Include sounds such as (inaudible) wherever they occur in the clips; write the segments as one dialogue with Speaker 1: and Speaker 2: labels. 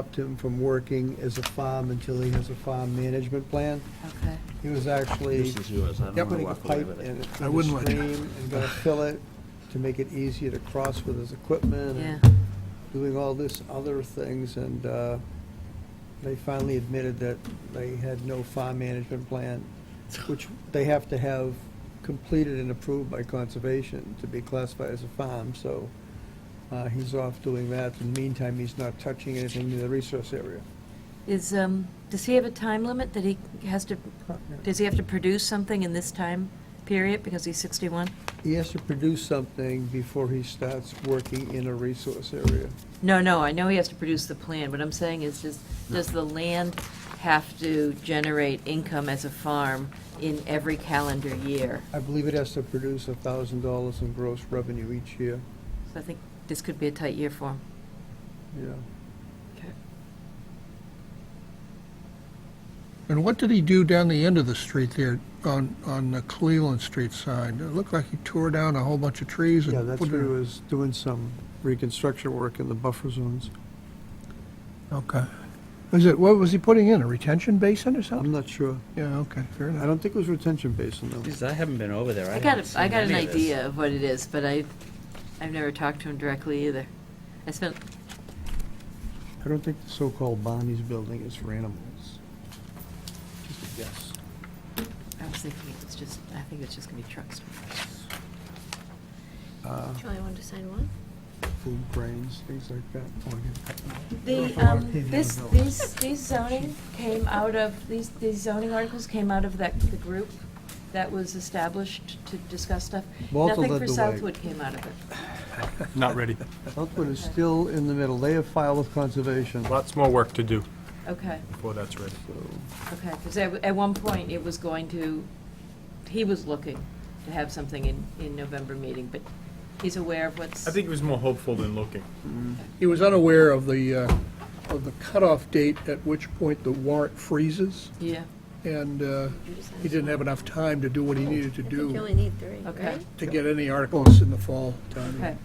Speaker 1: stopped him from working as a farm until he has a farm management plan.
Speaker 2: Okay.
Speaker 1: He was actually
Speaker 3: This is yours, I don't want to
Speaker 1: putting a
Speaker 3: walk away
Speaker 1: pipe
Speaker 3: with
Speaker 1: in
Speaker 3: it.
Speaker 1: it,
Speaker 4: I
Speaker 1: in the
Speaker 4: wouldn't let you.
Speaker 1: stream, and
Speaker 4: (laughs)
Speaker 1: gonna fill it to make it easier to cross with his equipment.
Speaker 2: Yeah.
Speaker 1: and Doing all this other things, and uh, they finally admitted that they had no farm management plan, which they have to have completed and approved by conservation to be classified as a farm, so uh, he's off doing that. In the meantime, he's not touching anything in the resource area.
Speaker 2: Is, um, does he have a time limit that he has to, does he have to produce something in this time period because he's 61?
Speaker 1: He has to produce something before he starts working in a resource area.
Speaker 2: No, no, I know he has to produce the plan. What I'm saying is, does, does the land have to generate income as a farm in every calendar year?
Speaker 1: I believe it has to produce a thousand dollars in gross revenue each year,
Speaker 2: So I think this could be a tight year for him.
Speaker 1: yeah.
Speaker 4: And what did he do down the end of the street there on, on the Cleveland Street side? It looked like he tore down a whole bunch of trees and
Speaker 1: Yeah, that's
Speaker 4: put
Speaker 1: where he
Speaker 4: it.
Speaker 1: was doing some reconstruction work in the buffer zones.
Speaker 4: Okay. Is it, what was he putting in, a retention basin or
Speaker 1: I'm
Speaker 4: something?
Speaker 1: not sure.
Speaker 4: Yeah, okay, fair
Speaker 1: I
Speaker 4: enough.
Speaker 1: don't think it was retention basin though.
Speaker 3: Jeez, I haven't been over there.
Speaker 2: I got,
Speaker 3: haven't
Speaker 2: a- I
Speaker 3: seen
Speaker 2: got an
Speaker 3: any of this.
Speaker 2: idea of what it is, but I, I've never talked to him directly either. I spent,
Speaker 1: I don't think the so-called Bonnie's building is for animals. Just a guess.
Speaker 2: I was thinking it's just, I think it's just gonna be trucks.
Speaker 1: Uh,
Speaker 5: Do I want to sign one?
Speaker 1: Food grains, things like that. Oh, I get-
Speaker 2: The,
Speaker 1: Or
Speaker 2: um,
Speaker 1: paving
Speaker 2: this,
Speaker 1: the village.
Speaker 2: these, these zoning came out of, these, these zoning articles came out of that, the group that was established to discuss stuff.
Speaker 1: Walter
Speaker 2: Nothing
Speaker 1: led
Speaker 2: for
Speaker 1: the way.
Speaker 2: Southwood came out of it.
Speaker 1: (laughs)
Speaker 6: Not ready.
Speaker 1: Southwood is still in the middle. They have filed with conservation, so.
Speaker 6: Lots more work to do
Speaker 2: Okay,
Speaker 6: before that's ready.
Speaker 2: okay, because at, at one point it was going to, he was looking to have something in, in November meeting, but he's aware of what's.
Speaker 6: I think he was more hopeful than looking.
Speaker 1: mm.
Speaker 4: He was unaware of the, uh, of the cutoff date at which point the warrant freezes,
Speaker 2: Yeah,
Speaker 4: and uh,
Speaker 5: You just sign
Speaker 4: he didn't
Speaker 5: one.
Speaker 4: have enough time to do what he needed to
Speaker 5: I think you
Speaker 4: do
Speaker 5: only need three,
Speaker 2: Okay.
Speaker 5: right?
Speaker 4: to get any articles in the fall time.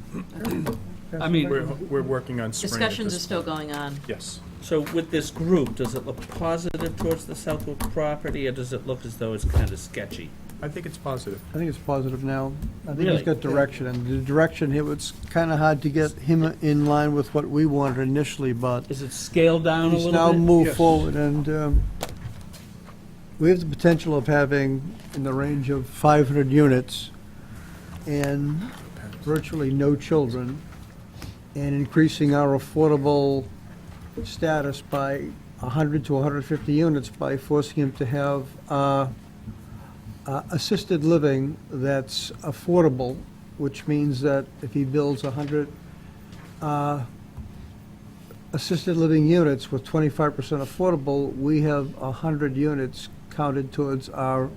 Speaker 2: okay.
Speaker 6: I mean. We're, we're working on spring. at
Speaker 2: Discussions are
Speaker 6: this
Speaker 2: still
Speaker 6: point.
Speaker 2: going on.
Speaker 6: Yes.
Speaker 3: So with this group, does it look positive towards the Southwood property, or does it look as though it's kind of sketchy?
Speaker 6: I think it's positive.
Speaker 1: I think it's positive now. I think he's
Speaker 3: Really?
Speaker 1: got direction, and the direction, it was kind of hard to get him in line with what we wanted initially, but
Speaker 3: Is it scaled down a
Speaker 1: he's now
Speaker 3: little bit?
Speaker 1: moved
Speaker 4: Yes.
Speaker 1: forward, and um, we have the potential of having in the range of 500 units and virtually no children, and increasing our affordable status by 100 to 150 units by forcing him to have uh, uh, assisted living that's affordable, which means that if he builds 100 uh, assisted living units with 25% affordable, we have 100 units counted towards our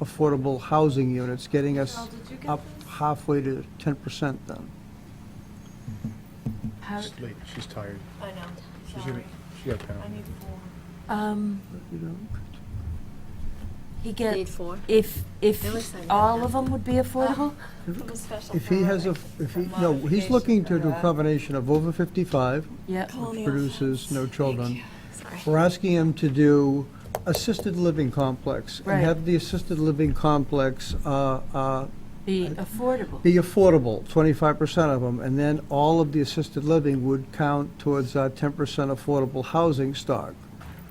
Speaker 1: affordable housing units, getting us up halfway to 10% then.
Speaker 2: How,
Speaker 6: She's late. She's tired.
Speaker 5: I know,
Speaker 6: She's gonna- She got down.
Speaker 5: four.
Speaker 2: um,
Speaker 1: You know,
Speaker 2: he gets.
Speaker 5: Need four?
Speaker 2: If, if
Speaker 5: It looks like
Speaker 2: all
Speaker 5: that.
Speaker 2: of them would be affordable?
Speaker 1: If he has a, if he, no, he's looking to do a combination of over 55,
Speaker 2: Yeah,
Speaker 1: which produces no children.
Speaker 5: Sorry.
Speaker 1: We're asking him to do assisted living complex and
Speaker 2: Right.
Speaker 1: have the assisted living complex uh, uh,
Speaker 2: be affordable.
Speaker 1: be affordable, 25% of them, and then all of the assisted living would count towards our 10% affordable housing stock.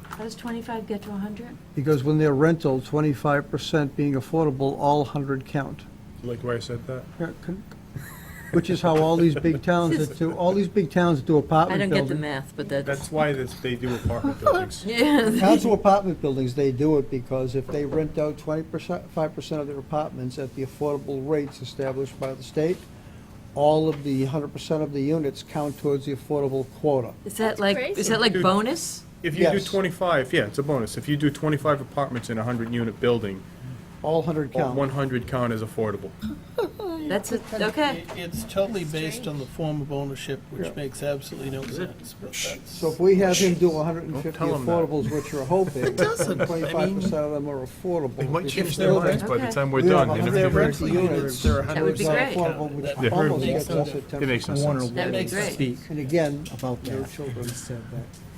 Speaker 2: How does 25 get to 100?
Speaker 1: Because when they're rental, 25% being affordable, all 100 count.
Speaker 6: You Like why I said that?
Speaker 1: Yeah, con- Which is how all these big towns that do, all these big towns that do
Speaker 2: I don't
Speaker 1: apartment
Speaker 2: get the
Speaker 1: buildings.
Speaker 2: math, but that's.
Speaker 6: That's why this- they
Speaker 2: (laughs)
Speaker 6: do apartment buildings.
Speaker 2: Yeah.
Speaker 1: Towns do apartment buildings, they do it because if they rent out 20%, 5% of their apartments at the affordable rates established by the state, all of the 100% of the units count towards the affordable quota.
Speaker 2: Is that
Speaker 5: That's
Speaker 2: like,
Speaker 5: crazy.
Speaker 2: is that like
Speaker 6: Dude.
Speaker 2: bonus?
Speaker 6: If you do
Speaker 1: Yes.
Speaker 6: twenty-five, yeah, it's a bonus. If you do twenty-five apartments in a hundred-unit building,
Speaker 1: All 100 count.
Speaker 6: one hundred count is affordable.
Speaker 2: That's it, okay.
Speaker 7: It- It's totally based on the form of ownership,
Speaker 1: Yeah.
Speaker 7: which makes absolutely no sense. but that's-
Speaker 1: So if we have him do 150
Speaker 6: Don't tell him that.
Speaker 1: affordables, which are
Speaker 6: (laughs)
Speaker 1: hoping, and
Speaker 7: doesn't. I
Speaker 1: 25% of them are affordable.
Speaker 6: They might
Speaker 1: it's
Speaker 6: change their
Speaker 1: still-
Speaker 6: minds by the
Speaker 2: Okay.
Speaker 6: time we're
Speaker 1: We have
Speaker 6: done. and if they
Speaker 1: 150
Speaker 6: rent-
Speaker 1: units
Speaker 6: they're a
Speaker 1: towards
Speaker 2: That would be
Speaker 1: our
Speaker 2: great.
Speaker 1: affordable, which
Speaker 7: That
Speaker 6: would
Speaker 1: almost
Speaker 6: be
Speaker 1: gets
Speaker 7: great.
Speaker 1: us at
Speaker 6: It makes no
Speaker 1: 10%.
Speaker 6: sense.
Speaker 2: That would be great.
Speaker 1: And again, no children.
Speaker 8: said that.